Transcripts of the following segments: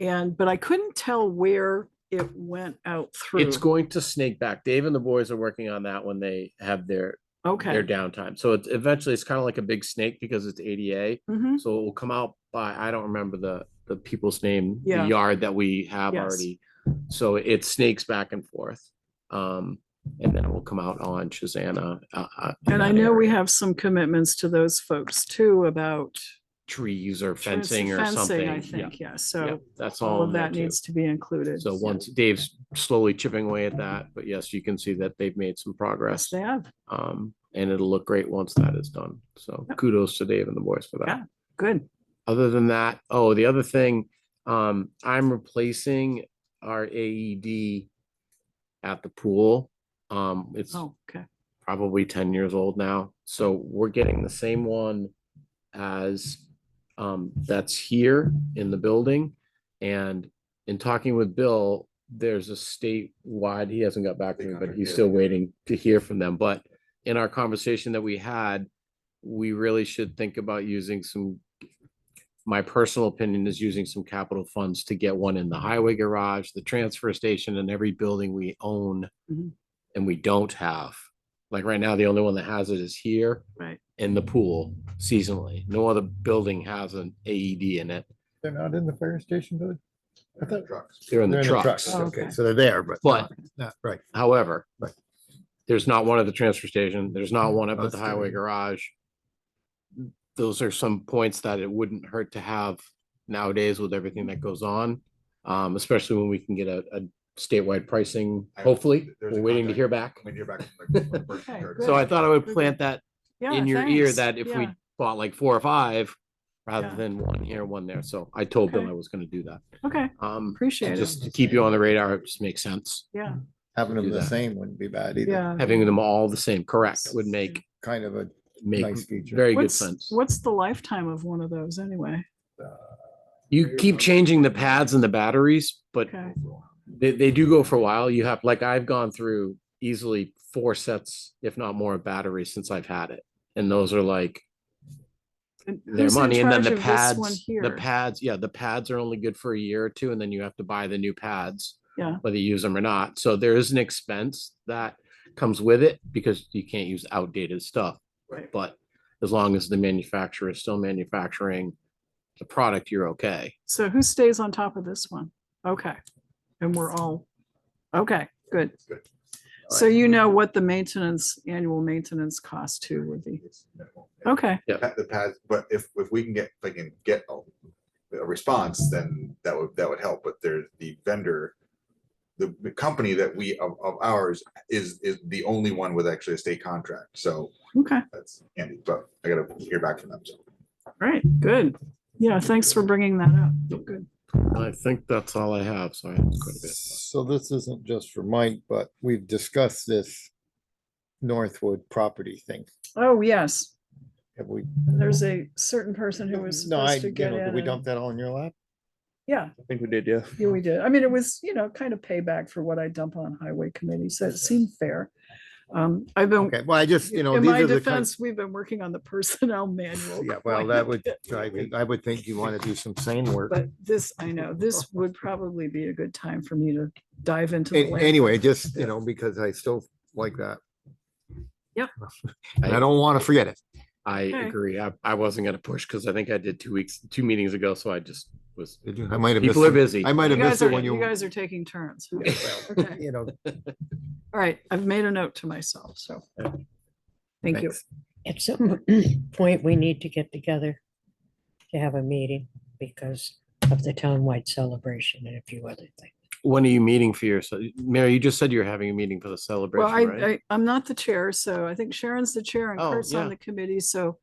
And, but I couldn't tell where it went out through. It's going to snake back. Dave and the boys are working on that when they have their, their Okay. downtime. So it's eventually, it's kind of like a big snake because it's ADA. Mhm. So it will come out by, I don't remember the, the people's name, the Yeah. yard that we have Yes. already. So it snakes back and forth. Um, and then it will come out on Shazana. uh, uh, in And I that know we area. have some commitments to those folks too about. Trees or trans- fencing or fencing, something. I Yeah, think, yeah. yeah, So that's all. all of in there that too. needs to be included. So once Dave's slowly chipping away at that, but yes, you can see that they've made some progress. They have, Um, and it'll look great once that is done. So Yep. kudos to Dave and the boys for that. Yeah. good. Other than that, oh, the other thing, um, I'm replacing our AED at the pool. Um, it's Oh, okay. probably ten years old now. So we're getting the same one as um that's here in the building. And in talking with Bill, there's a statewide, he hasn't got back to me, but he's still waiting to hear from them. But in our conversation that we had, we really should think about using some my personal opinion is using some capital funds to get one in the highway garage, the transfer station, and every building we own Mhm. and we don't have. Like right now, the only one that has it is here. Right. In the pool seasonally. No other building has an AED in it. They're not in the fire station, Billy? I thought- They're in They're the trucks. Oh, Okay, okay. so they're there, but. But- Not, right. However, Right. there's not one at the transfer station. There's not one up Oh, at the that's highway good. garage. Those are some points that it wouldn't hurt to have nowadays with everything that goes on. Um, especially when we can get a, a statewide pricing, I- hopefully. there's We're a waiting to contact. hear back. When you're back. from the- from the first Okay, third. good. So I thought I would Very plant good. that Yeah, in your ear thanks. that if we Yeah. bought like four or five rather Yeah. than one here, one there. So I told Bill Okay. I was gonna do that. Okay, Um, and appreciate it. just to keep you on the radar, it just makes sense. Yeah, Having Do them the that. same wouldn't be bad either. yeah. Having them all the same, correct, would make, Kind of a, make Nice feature. very good What's, sense. what's the lifetime of one of those anyway? You keep changing the pads and the batteries, but Okay, they, they do go for a while. You have, like, I've gone through easily four sets, if not more, of batteries since I've had it. And those are like And their who's in money and then charge the of this one pads, the here? pads, yeah, the pads are only good for a year or two and then you have to buy the new pads. Yeah. Whether you use them or not. So there is an expense that comes with it because you can't use outdated stuff. Right. But as long as the manufacturer is still manufacturing the product, you're okay. So who stays on top of this one? Okay, and we're all, okay, good. Good. So you know what the maintenance, annual maintenance cost too would be. It's minimal. Okay, Pa- The pads, but if, if we can get, if I can get a a response, then that would, that would help, but there's the vendor. The, the company that we, of, of ours is, is the only one with actually a state contract, so okay, that's Andy, but I gotta hear back from them, so. all right, good. Yeah, thanks for bringing that up. Good. I think that's all I have. So I have quite a bit. so this isn't just for Mike, but we've discussed this Northwood property thing. Oh, yes, Have we? there's a certain person who was No, I, supposed to you get know, in. did we and- dump that all in your lap? Yeah, I think we did, yeah. yeah, we did. I mean, it was, you know, kind of payback for what I dump on highway committee, so it seemed fair. Um, I've been, Okay, well, I just, you know, in these my are the kinds. defense, we've been working on the personnel manual. Yeah, quite well, a that would, bit, I think, I would think you want to do some sane work. But this, I know, this would probably be a good time for me to dive into. the An- land. Anyway, just, you know, because I still like that. Yep. And I don't want to forget it. I Okay. agree. I, I wasn't gonna push because I think I did two weeks, two meetings ago. So I just was, Did you- I might have missed. people are it. busy. I might You have missed guys it are, when you you, guys are taking turns. well, Okay. you know, All right, I've made a note to myself, so. Thank you. At some point, we need to get together to have a meeting because of the townwide celebration and a few other things. When are you meeting for your, so- Mary, you just said you're having a meeting for the Well, I, celebration, right? I, I'm not the chair, so I think Sharon's the chair and Oh, Kurt's yeah. on the committee, so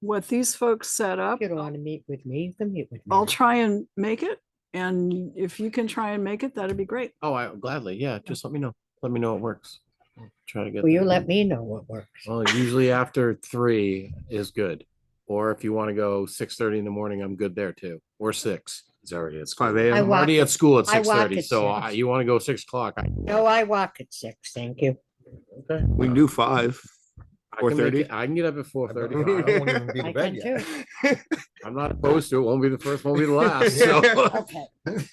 what these folks set up, If you don't want to meet with me, you can meet with me. I'll try and make it. And if you can try and make it, that'd be great. Oh, I gladly, yeah, just let me know. Let me know it works. I'll Try to get. Will you there. let me know what works? Well, usually after three is good. Or if you want to go six thirty in the morning, I'm good there too, or six. It's already, it's five I I'm already walk- at school at I walk six thirty, at so I- six. you want to go six o'clock? I- No, I walk at six, thank you. Okay. We can do five. I can make 4:30? it- I can get up at four I thirty. don't- I won't even be I in can bed yet. too. I'm not opposed to it. Won't be the first, won't be the last, so. Okay.